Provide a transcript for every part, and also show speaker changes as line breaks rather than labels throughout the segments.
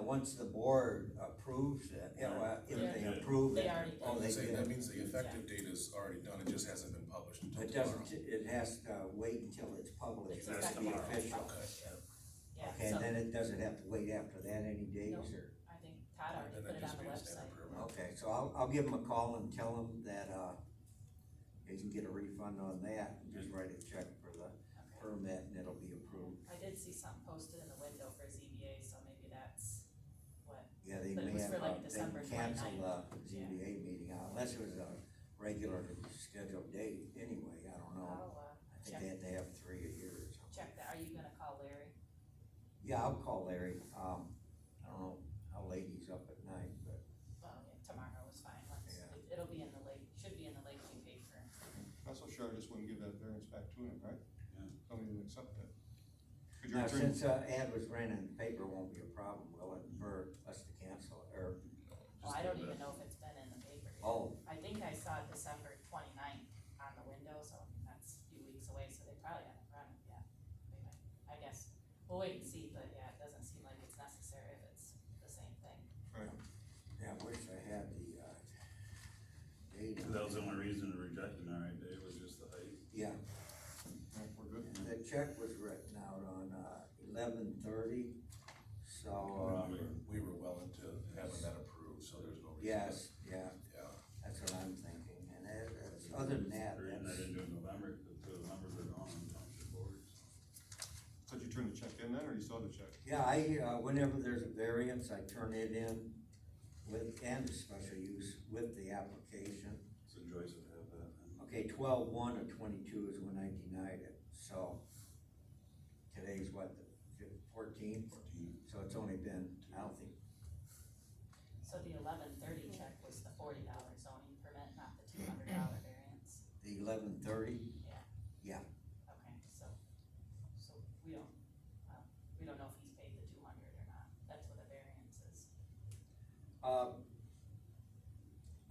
once the board approves it, you know, uh, if they
Yeah.
approve it,
They already did.
oh, they
Say,
did.
that
it.
means the effective date is already done, it just hasn't been published until
It
tomorrow.
doesn't, it has to wait until it's published,
It's
that's the
effective.
official.
Okay.
Yeah,
Okay,
so
and then it doesn't have to wait after that any days or,
I think Todd already
Then
put
that
it on
just
the
means they
website.
approve it.
okay, so I'll, I'll give them a call and tell them that, uh, they can get a refund on that, and just write a check for the
Okay.
permit and it'll be approved.
I did see something posted in the window for ZBA, so maybe that's what,
Yeah, they
But it
may
was
have,
for,
uh,
like,
they
December
can cancel
29th.
the ZBA meeting, uh, unless it was a regularly scheduled date anyway, I don't know.
I'll, uh,
I think they had to have three a year or something.
check that. Are you gonna call Larry?
Yeah, I'll call Larry, um, I don't know how late he's up at night, but,
Well, yeah, tomorrow is fine, let's,
Yeah.
it- it'll be in the late, should be in the late fee paper.
That's what Shar just wouldn't give that variance back to him, right?
Yeah.
Don't even accept that. Could your
now,
attorney,
since, uh, ad was ran in the paper, it won't be a problem, will it, for us to cancel it, or,
Well, I don't even know if it's been in the paper yet.
oh,
I think I saw December twenty-ninth on the window, so that's a few weeks away, so they probably haven't run it yet. They might- I guess, we'll wait and see, but yeah, it doesn't seem like it's necessary if it's the same thing.
yeah, I wish I had the, uh, date.
That was the only reason to reject it, all right, Dave, was just the height.
Yeah,
Yeah, we're good.
and the check was written out on, uh, eleven thirty, so,
We
uh,
were- We were well into having that approved, so there's no reason. to-
yes, yeah,
Yeah.
that's what I'm thinking, and that, that's- other than that,
The reason I
that's.
didn't do it in November, because the numbers are gone on township boards.
Did you turn the check in then, or you saw the check?
Yeah, I, uh, whenever there's a variance, I turn it in with, and a special use with the application.
So Joyce would have that. then.
Okay, twelve one of twenty-two is when I denied it, so today's what, the fourteenth?
Fourteen.
So it's only been, I don't think,
So the eleven thirty check was the forty dollar zoning permit, not the two hundred dollar variance?
the eleven thirty?
Okay, so, so we don't, well, we don't know if he's paid the two hundred or not, that's what a variance is.
Uh,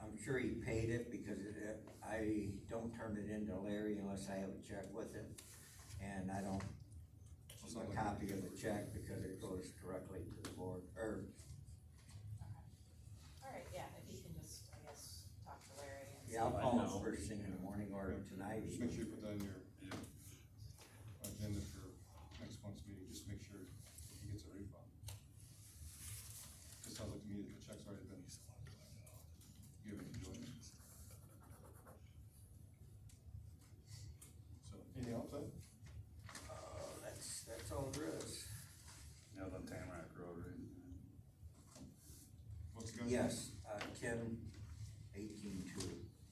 I'm sure he paid it because it, it- I don't turn it into Larry unless I have a check with it. And I don't keep a copy of the check because it goes directly to the board, or
Alright, yeah, if you can just, I guess, talk to Larry and see.
Yeah, I'll
I
call
know.
him first thing in the morning or tonight.
Just
even.
make sure you put that in your
Yeah.
agenda for next month's meeting, just make sure he gets a refund. Just sounds like to me that the check's already been given to Jordan. So, anything else, Ed?
Uh, that's, that's all there is.
Yeah, the Tamarack Road, right?
What's the guy's name?
Yes, uh, ten eighteen two.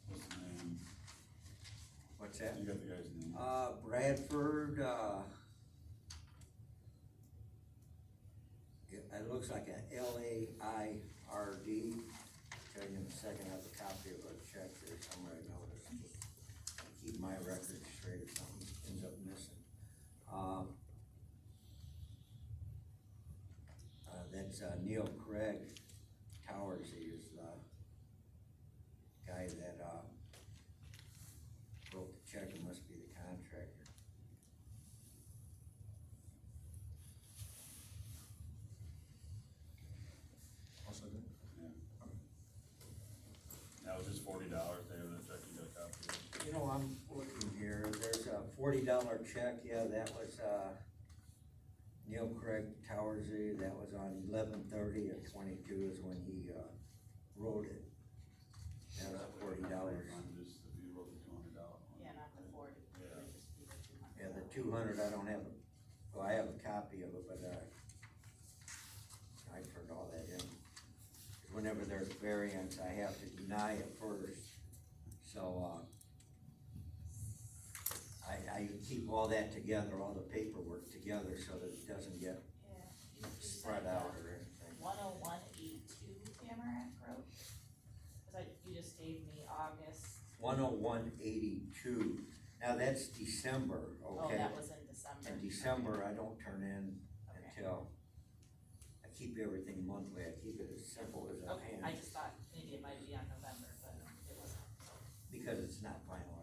What's the name?
What's that?
You got the guy's name?
Uh, Bradford, uh, it, it looks like a L A I R D. Tell you in a second, I have a copy of a check here somewhere I noticed. Keep my record straight if something ends up missing. Um, uh, that's uh, Neil Craig Towers, he is the guy that, uh, wrote the check, it must be the contractor.
I'll second.
That was just forty dollars, Dave, the check, you got a copy of it.
You know, I'm looking here, there's a forty dollar check, yeah, that was, uh, Neil Craig Towersy, that was on eleven thirty of twenty-two is when he, uh, wrote it. That was forty dollars.
I'm Just, if you wrote the two hundred dollar one.
Yeah, not the forty, it would just be the two hundred.
Yeah, the two hundred, I don't have, a- well, I have a copy of it, but, uh, I turned all that in. Whenever there's variance, I have to deny it first, so, uh, I, I keep all that together, all the paperwork together, so that it doesn't get
Yeah. you- you said
spread
that.
out or anything.
one oh one eight two Tamarack Road? Cause I, you just gave me August,
One oh one eighty-two, now that's December,
oh,
okay?
that was in December.
In December, I don't turn in
Okay.
until, I keep everything monthly, I keep it as simple as I
Okay, I
can,
just thought maybe it might be on November, but it wasn't, so,
because it's not